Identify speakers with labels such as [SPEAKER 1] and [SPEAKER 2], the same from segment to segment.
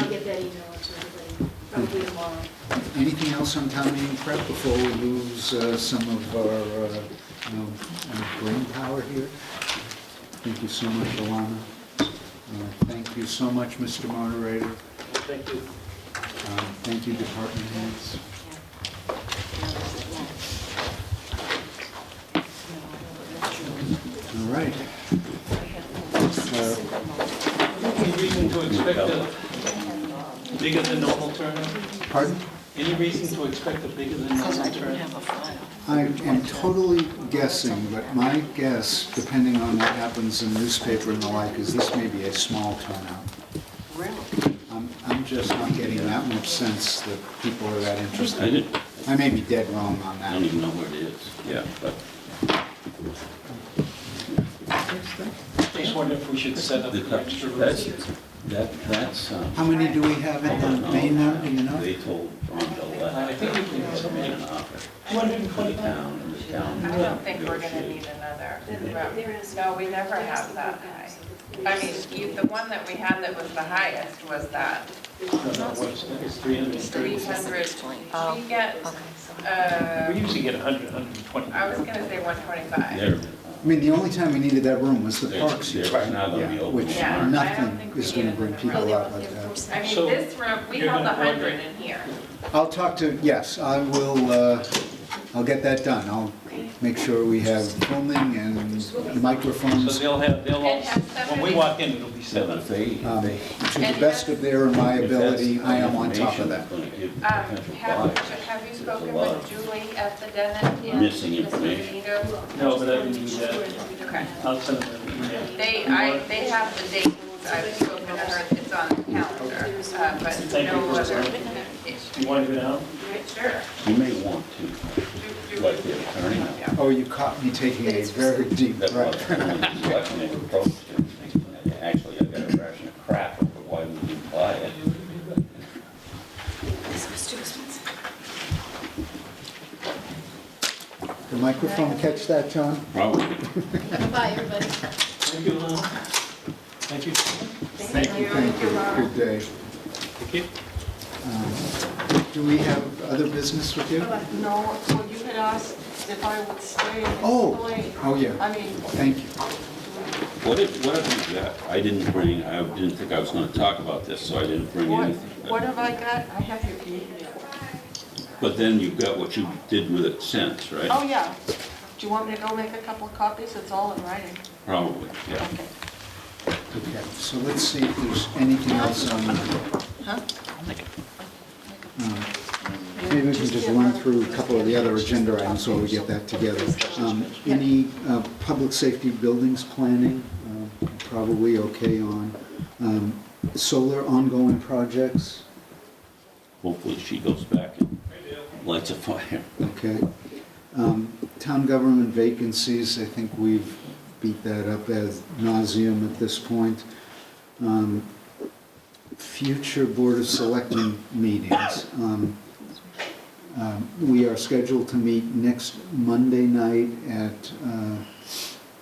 [SPEAKER 1] Hmm.
[SPEAKER 2] following.
[SPEAKER 1] Anything else on town meeting prep before we lose uh, some of our, uh, you know, our brain power here? Thank you so much, Alana. Uh, Thank you so much, Mr. Moderator.
[SPEAKER 3] Thank you.
[SPEAKER 1] Um, Thank you, department heads. All right.
[SPEAKER 3] Any reason to expect a bigger than normal turnout?
[SPEAKER 1] Pardon?
[SPEAKER 3] Any reason to expect a bigger than normal turnout?
[SPEAKER 1] I am totally guessing, but my guess, depending on what happens in newspaper and the like, is this may be a small turnout.
[SPEAKER 2] Really?
[SPEAKER 1] I'm, I'm just not getting that much sense that people are that
[SPEAKER 4] I
[SPEAKER 1] interested.
[SPEAKER 4] didn't,
[SPEAKER 1] I may be dead wrong on
[SPEAKER 4] I don't
[SPEAKER 1] that.
[SPEAKER 4] even know where it is, yeah, but
[SPEAKER 3] Just wonder if we should set up
[SPEAKER 4] the-
[SPEAKER 3] an extra
[SPEAKER 4] that's,
[SPEAKER 3] room.
[SPEAKER 4] that, that's, um,
[SPEAKER 1] How many do we have in the main now, do you know?
[SPEAKER 4] uh, They told Ron Del
[SPEAKER 3] I think we can
[SPEAKER 4] to make an
[SPEAKER 3] submit
[SPEAKER 4] offer to the
[SPEAKER 3] 225.
[SPEAKER 4] town, and the town.
[SPEAKER 2] I don't think we're gonna
[SPEAKER 4] negotiated.
[SPEAKER 2] need another.
[SPEAKER 5] There is-
[SPEAKER 2] No, we never have that high. I mean, you- the one that we had that was the highest was that
[SPEAKER 3] No, no, what's that? It's 330.
[SPEAKER 2] 300.
[SPEAKER 5] Oh,
[SPEAKER 2] We get,
[SPEAKER 3] We
[SPEAKER 2] uh,
[SPEAKER 3] usually get 100, 120.
[SPEAKER 2] I was gonna say 125.
[SPEAKER 4] They're,
[SPEAKER 1] I mean, the only time we needed that room was the
[SPEAKER 4] they're,
[SPEAKER 1] parks.
[SPEAKER 4] they're not gonna be
[SPEAKER 1] Yeah,
[SPEAKER 4] open.
[SPEAKER 1] which
[SPEAKER 2] Yeah, I don't
[SPEAKER 1] nothing
[SPEAKER 2] think we Oh,
[SPEAKER 1] is gonna
[SPEAKER 2] needed
[SPEAKER 1] bring
[SPEAKER 2] another
[SPEAKER 1] people
[SPEAKER 2] room.
[SPEAKER 1] out like that.
[SPEAKER 2] I mean,
[SPEAKER 3] So,
[SPEAKER 2] this room, we
[SPEAKER 3] you're
[SPEAKER 2] held
[SPEAKER 3] gonna
[SPEAKER 2] 100
[SPEAKER 3] order-
[SPEAKER 2] in here.
[SPEAKER 1] I'll talk to, yes, I will, uh, I'll get that done. I'll
[SPEAKER 2] Um,
[SPEAKER 1] make sure we have filming and
[SPEAKER 3] So
[SPEAKER 1] microphones
[SPEAKER 3] they'll have, they'll all,
[SPEAKER 2] And have
[SPEAKER 3] when we
[SPEAKER 2] separate-
[SPEAKER 3] walk in, it'll be
[SPEAKER 4] So
[SPEAKER 3] set up.
[SPEAKER 4] if they, if
[SPEAKER 1] um,
[SPEAKER 4] they.
[SPEAKER 1] to the best of their and my ability. I am on top of that.
[SPEAKER 2] Um, Have have you spoken with Julie at the Denet yet?
[SPEAKER 4] Missing
[SPEAKER 2] Mrs.
[SPEAKER 4] information.
[SPEAKER 2] Benito?
[SPEAKER 3] No, but I didn't do that.
[SPEAKER 2] Okay.
[SPEAKER 3] I'll send them an email.
[SPEAKER 2] They, I, they have the date, I've spoken to her, it's on the calendar, uh, but
[SPEAKER 3] Thank you
[SPEAKER 2] no
[SPEAKER 3] for
[SPEAKER 2] other.
[SPEAKER 3] explaining. Do you want to go down?
[SPEAKER 2] Sure.
[SPEAKER 4] You may want to, like the attorney,
[SPEAKER 1] Oh, you caught me taking a very deep
[SPEAKER 4] that was
[SPEAKER 1] breath.
[SPEAKER 4] when they approached everything, and actually, I got a ration of crap over why we didn't buy it.
[SPEAKER 5] This was too expensive.
[SPEAKER 1] The microphone catch that, John?
[SPEAKER 4] Probably.
[SPEAKER 5] Bye, everybody.
[SPEAKER 3] Thank you, Lon. Thank you.
[SPEAKER 2] Thank you.
[SPEAKER 1] Thank you. Good day.
[SPEAKER 3] Thank you.
[SPEAKER 1] Um, Do we have other business with you?
[SPEAKER 6] No, well, you had asked if I would stay and
[SPEAKER 1] Oh,
[SPEAKER 6] explain.
[SPEAKER 1] oh, yeah,
[SPEAKER 6] I mean,
[SPEAKER 1] thank you.
[SPEAKER 4] What if, what have you got? I didn't bring, I didn't think I was gonna talk about this, so I didn't bring
[SPEAKER 6] what,
[SPEAKER 4] anything.
[SPEAKER 6] what have I got? I have your email.
[SPEAKER 4] But then you've got what you did with it since,
[SPEAKER 6] Oh,
[SPEAKER 4] right?
[SPEAKER 6] yeah. Do you want me to go make a couple of copies? It's all in writing.
[SPEAKER 4] Probably, yeah.
[SPEAKER 6] Okay.
[SPEAKER 1] Okay, so let's see if there's anything else on,
[SPEAKER 6] Huh?
[SPEAKER 1] Uh, maybe we can just run through a couple of the other agenda items while we get that together. Um, Any uh, public safety buildings planning, uh, probably okay on. Um, Solar ongoing projects,
[SPEAKER 4] Hopefully she goes back and lights a fire.
[SPEAKER 1] okay. Um, Town government vacancies, I think we've beat that up as nauseum at this point. Um, Future Board of Selectmen meetings. Um, um, We are scheduled to meet next Monday night at uh,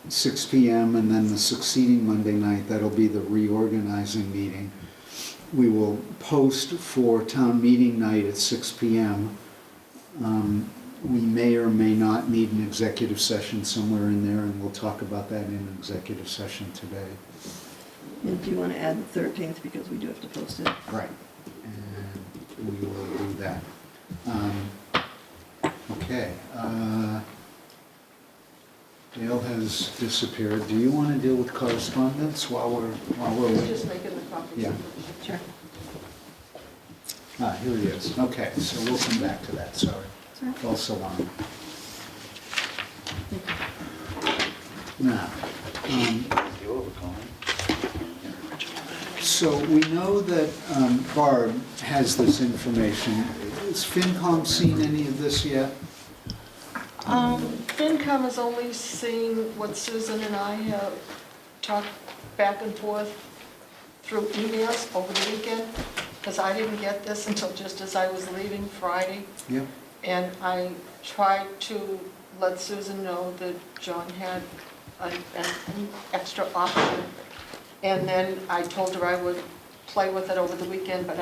[SPEAKER 1] 6 PM, and then the succeeding Monday night, that'll be the reorganizing meeting. We will post for town meeting night at 6 PM. Um, We may or may not need an executive session somewhere in there, and we'll talk about that in executive session today.
[SPEAKER 7] And do you want to add the 13th, because we do have to post it?
[SPEAKER 1] Right. And we will do that. Um, Okay. uh, Dale has disappeared. Do you want to deal with correspondence while we're, while we're
[SPEAKER 6] He's
[SPEAKER 1] waiting?
[SPEAKER 6] just making the copies.
[SPEAKER 1] Yeah.
[SPEAKER 7] Sure.
[SPEAKER 1] Ah, here he is. Okay, so we'll come back to that, sorry.
[SPEAKER 7] Sorry.
[SPEAKER 1] Also on. Now, um, so we know that um, Barb has this information. Has FinCom seen any of this yet?
[SPEAKER 6] Um, FinCom has only seen what Susan and I have talked back and forth through emails over the weekend, because I didn't get this until just as I was leaving Friday.
[SPEAKER 1] Yeah.
[SPEAKER 6] And I tried to let Susan know that John had an, an extra option. And then I told her I would play with it over the weekend, but